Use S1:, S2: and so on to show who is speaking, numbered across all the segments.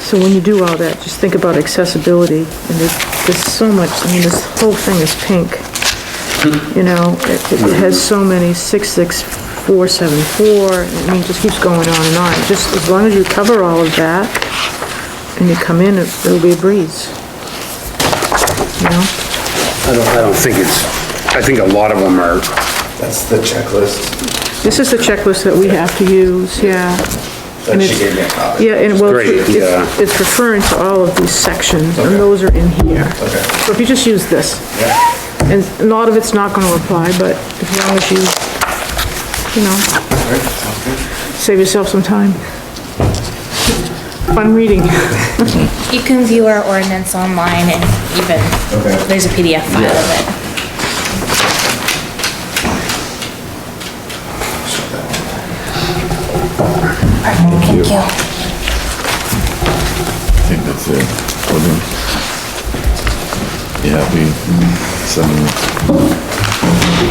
S1: So when you do all that, just think about accessibility, and there's, there's so much, I mean, this whole thing is pink. You know, it it has so many, 66474, I mean, it just keeps going on and on. Just as long as you cover all of that, and you come in, it- it'll be a breeze. You know?
S2: I don't, I don't think it's, I think a lot of them are,
S3: That's the checklist
S1: This is the checklist that we have to use, yeah.
S3: that
S1: And
S3: she
S1: it's-
S3: gave me a copy.
S1: Yeah, and well,
S2: Great,
S1: it's-
S2: yeah.
S1: it's it's referring to all of these sections, and
S3: Okay.
S1: those are in here.
S3: Okay.
S1: So if you just use this,
S3: Yeah.
S1: and a lot of it's not gonna apply, but as long as you, you know,
S3: All right, sounds good.
S1: save yourself some time. Fun reading.
S4: You can view our ordinance online and even,
S3: Okay.
S4: there's a PDF file of it. Thank you.
S5: I think that's it. Hold on. Yeah, we, some,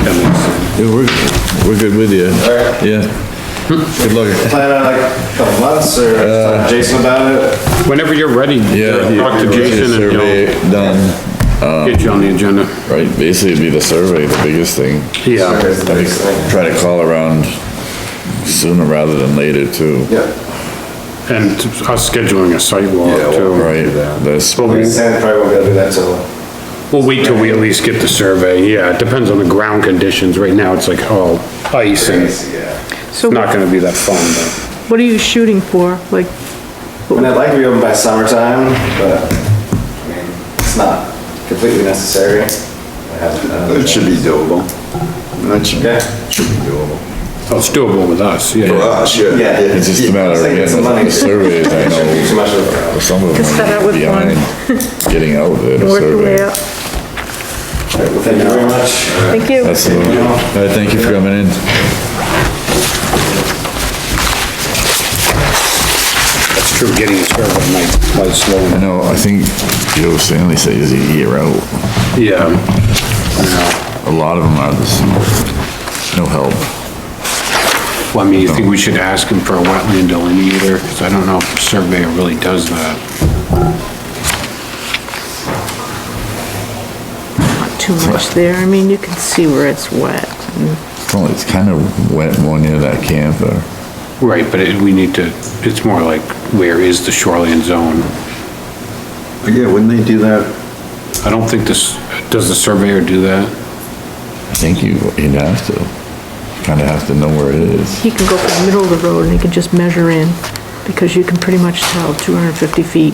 S5: Yeah, we're, we're good with you.
S3: Alright.
S5: Yeah. Good luck.
S3: Plan on like a couple months or
S6: Uh,
S3: talk to Jason about it?
S2: whenever you're ready, uh,
S5: Yeah.
S2: talk to Jason and
S5: Survey um,
S2: he'll
S5: Done,
S2: get you on the agenda.
S5: right, basically it'd be the survey, the biggest thing.
S3: Or
S2: Yeah,
S3: is
S5: I
S3: it-
S5: think Try to call around sooner rather than later too.
S3: Yeah.
S2: and us scheduling a site
S3: Yeah,
S2: walk
S3: well,
S2: too.
S5: Right, that's,
S2: But we-
S3: Sam probably won't be able to do that till,
S2: We'll wait till we at least get the survey, yeah, it depends on the ground conditions, right now it's like, oh, ice and it's
S3: yeah.
S1: So
S2: not gonna be that fun, but.
S1: what are you shooting for? Like,
S3: And I'd like to be open by summertime, but, I mean, it's not completely necessary. I haven't done
S6: It should be doable. That should,
S3: Yeah.
S6: should be doable.
S2: Oh, It's doable with us,
S6: For
S2: yeah.
S6: us, yeah.
S3: Yeah.
S5: it's just a matter of
S3: Save
S5: getting
S3: some money.
S5: the surveys, I
S3: Shouldn't be Too
S5: know,
S3: much of a,
S5: some of them
S1: Just set up
S5: are
S1: with one.
S5: behind getting out with the
S1: work your way
S5: survey.
S1: up.
S3: All right, well, thank you very much.
S1: Thank you.
S5: Absolutely. All right, thank you for coming in.
S2: It's true, getting a survey might, might slow
S5: I know, I think Joe Stanley says a year out.
S2: Yeah. Yeah.
S5: A lot of them are this, no help.
S2: Well, I mean, you think we should ask him for a wetland delineator, because I don't know if the surveyor really does that.
S1: Not too much there. I mean, you can see where it's wet.
S5: Well, it's kind of wet more near that camper.
S2: Right, but it, we need to, it's more like, where is the shoreline zone?
S6: Yeah, wouldn't they do that?
S2: I don't think this, does the surveyor do that?
S5: I think you, you'd have to, kind of have to know where it is.
S1: He can go from the middle of the road and he can just measure in, because you can pretty much tell 250 feet.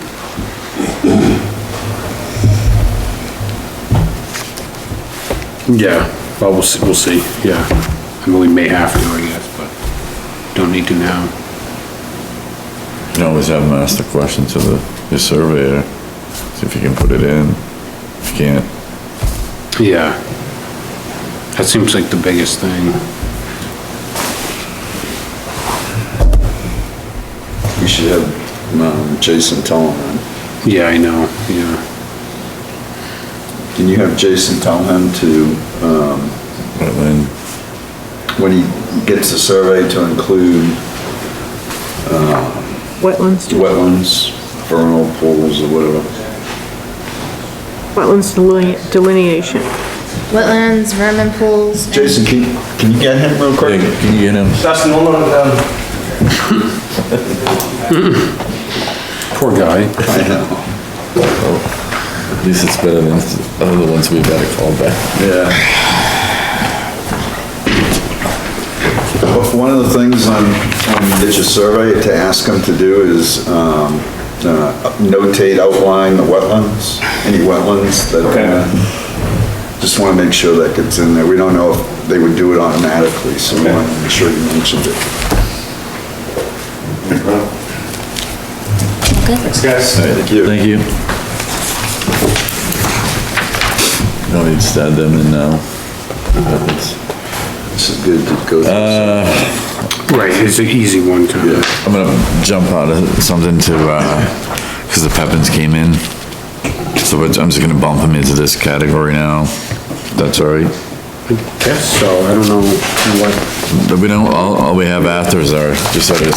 S2: Yeah, well, we'll, see- we'll see, yeah. I mean, we may have to, I guess, but don't need to now.
S5: You can always have them ask the question to the, the surveyor, see if you can put it in. If you can't,
S2: Yeah. That seems like the biggest thing.
S6: We should have, um, Jason tell him.
S2: Yeah, I know, yeah.
S6: Can you have Jason tell him to,
S5: put it in.
S6: when he gets the survey, to include
S1: Wetlands,
S6: wetlands, vernal pools or whatever?
S1: wetlands deline- delineation.
S4: Wetlands, vermin pools. and-
S6: Jason, can, can you get him real quick?
S5: Yeah, Can you get him?
S3: Justin, one more, um,
S2: Poor guy.
S6: I know.
S5: At least it's better than the other ones we've had to call back.
S6: Yeah. But One of the things on, on Ditch a Survey to ask them to do is, um, uh, notate, outline the wetlands, any wetlands that, uh, just wanna make sure that gets in there. We don't know if they would do it automatically, so we wanna make sure you mentioned it.
S3: thanks, guys.
S6: Thank you.
S5: Thank you. No need to stab them in now. That's-
S6: This is good to go through.
S2: Right, it's an easy one, kind of.
S5: I'm gonna jump out of something to, uh 'cause cause the Pepins came in. So we're- I'm just gonna bump them into this category now. That's all right.
S2: Guess so, I don't know what.
S5: But we don't, all, all we have after is our, just our